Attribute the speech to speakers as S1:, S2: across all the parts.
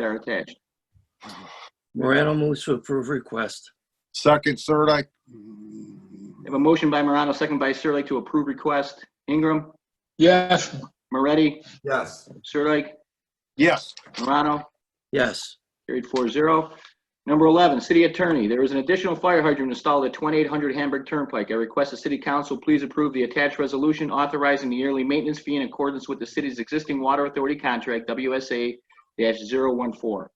S1: They're attached.
S2: Morano moves to approve request.
S3: Second, Sirdike.
S1: We have a motion by Morano, second by Sirlik to approve request. Ingram,
S4: yes,
S1: Moretti,
S5: yes,
S1: Sirlik,
S3: Yes,
S1: Morano,
S2: Yes.
S1: Carried four zero. Number 11, City Attorney, there is an additional fire hydrant installed at 2800 Hamburg Turnpike. I request the City Council please approve the attached resolution authorizing the yearly maintenance fee in accordance with the city's existing water authority contract, WSA-014.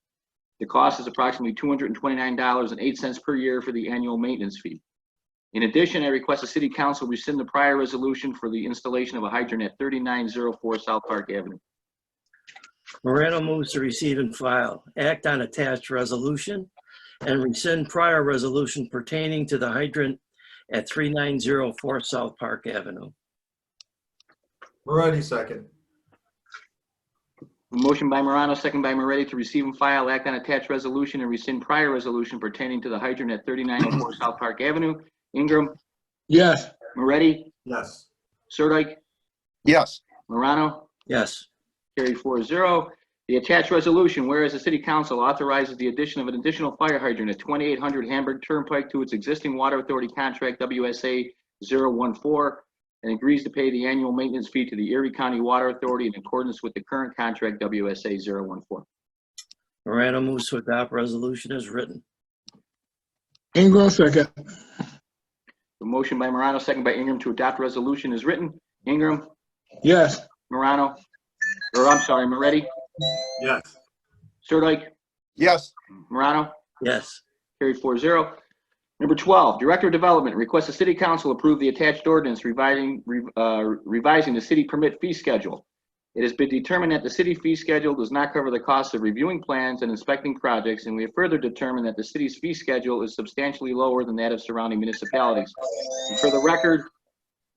S1: The cost is approximately $229.08 per year for the annual maintenance fee. In addition, I request the City Council rescind the prior resolution for the installation of a hydrant at 3904 South Park Avenue.
S2: Morano moves to receive and file, act on attached resolution, and rescind prior resolution pertaining to the hydrant at 3904 South Park Avenue.
S5: Moretti second,
S1: Motion by Morano, second by Moretti to receive and file act on attached resolution and rescind prior resolution pertaining to the hydrant at 3904 South Park Avenue. Ingram,
S4: yes,
S1: Moretti,
S5: yes,
S1: Sirdike,
S3: yes,
S1: Morano,
S2: Yes.
S1: carried four zero. The attached resolution, whereas the city council authorizes the addition of an additional fire hydrant at 2800 Hamburg Turnpike to its existing water authority contract WSA 014 and agrees to pay the annual maintenance fee to the Erie County Water Authority in accordance with the current contract WSA 014.
S2: Morano moves to adopt resolution as written.
S4: Ingram second,
S1: The motion by Morano, second by Ingram to adopt resolution is written. Ingram,
S4: yes,
S1: Morano, or I'm sorry, Moretti,
S5: yes,
S1: Sirdike,
S3: yes,
S1: Morano,
S2: Yes.
S1: carried four zero. Number 12, Director of Development requests the City Council approve the attached ordinance revising, re- uh, revising the city permit fee schedule. It has been determined that the city fee schedule does not cover the cost of reviewing plans and inspecting projects, and we have further determined that the city's fee schedule is substantially lower than that of surrounding municipalities. And For the record,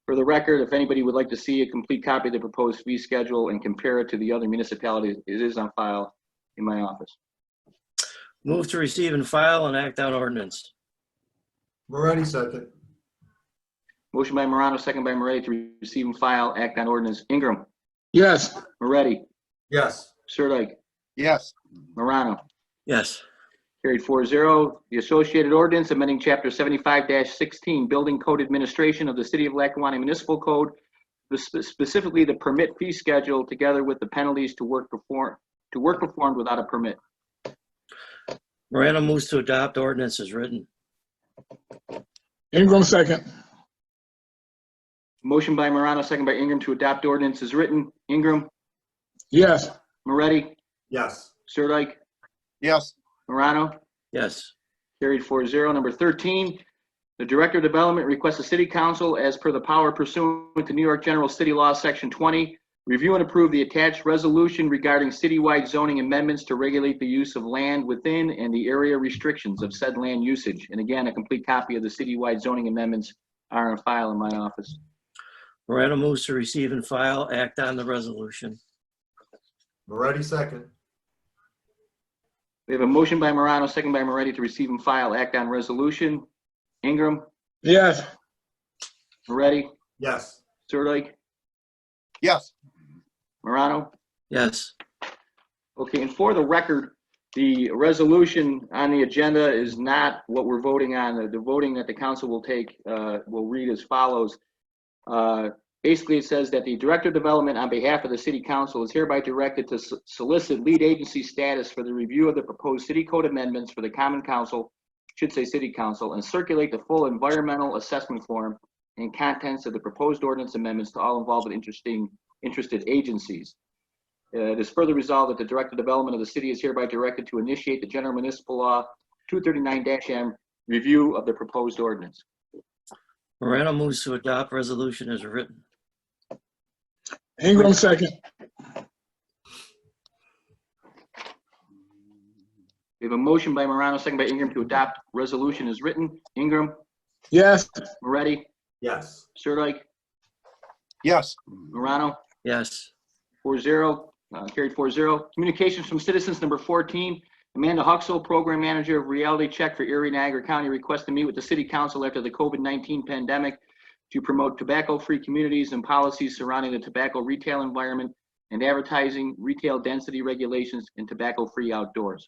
S1: for the record, if anybody would like to see a complete copy of the proposed fee schedule and compare it to the other municipalities, it is on file in my office.
S2: Move to receive and file and act on ordinance.
S5: Moretti second,
S1: Motion by Morano, second by Moretti to receive and file Act on Ordinance. Ingram,
S4: yes,
S1: Moretti,
S5: yes,
S1: Sirdike,
S3: yes,
S1: Morano.
S2: Yes.
S1: Carried 4-0. The associated ordinance amending Chapter seventy-five sixteen, Building Code Administration of the City of Lackawanna Municipal Code, spe- specifically the permit fee schedule, together with the penalties to work perform, to work performed without a permit.
S2: Morano moves to adopt ordinance as written.
S4: Ingram second,
S1: Motion by Morano, second by Ingram to adopt ordinance is written. Ingram,
S4: yes,
S1: Moretti,
S5: yes,
S1: Sirdike,
S3: yes,
S1: Morano.
S2: Yes.
S1: Carried 4-0. Number 13, the Director of Development requests the City Council, as per the power pursuant to New York General City Law, Section 20, review and approve the attached resolution regarding citywide zoning amendments to regulate the use of land within and the area restrictions of said land usage. And again, a complete copy of the citywide zoning amendments are on file in my office.
S2: Morano moves to receive and file, act on the resolution.
S5: Moretti second,
S1: We have a motion by Morano, second by Moretti, to receive and file act on resolution. Ingram,
S4: yes,
S1: Moretti,
S5: yes,
S1: Sirdike,
S3: yes,
S1: Morano.
S2: Yes.
S1: Okay, and for the record, the resolution on the agenda is not what we're voting on. The- The voting that the council will take, uh, will read as follows. Uh, Basically, it says that the Director of Development on behalf of the City Council is hereby directed to so- solicit lead agency status for the review of the proposed city code amendments for the Common Council, should say City Council, and circulate the full environmental assessment form and contents of the proposed ordinance amendments to all involved and interesting, interested agencies. Uh, It is further resolved that the Director of Development of the city is hereby directed to initiate the General Municipal Law 239-M review of the proposed ordinance.
S2: Morano moves to adopt resolution as written.
S4: Ingram second,
S1: We have a motion by Morano, second by Ingram to adopt resolution as written. Ingram,
S4: yes,
S1: Moretti,
S5: yes,
S1: Sirdike,
S3: yes,
S1: Morano,
S2: Yes.
S1: four zero, uh, carried four zero. Communications from citizens, number 14. Amanda Huxell, Program Manager of Reality Check for Erie Niagara County, requests to meet with the City Council after the COVID-19 pandemic to promote tobacco-free communities and policies surrounding the tobacco retail environment and advertising, retail density regulations, and tobacco-free outdoors.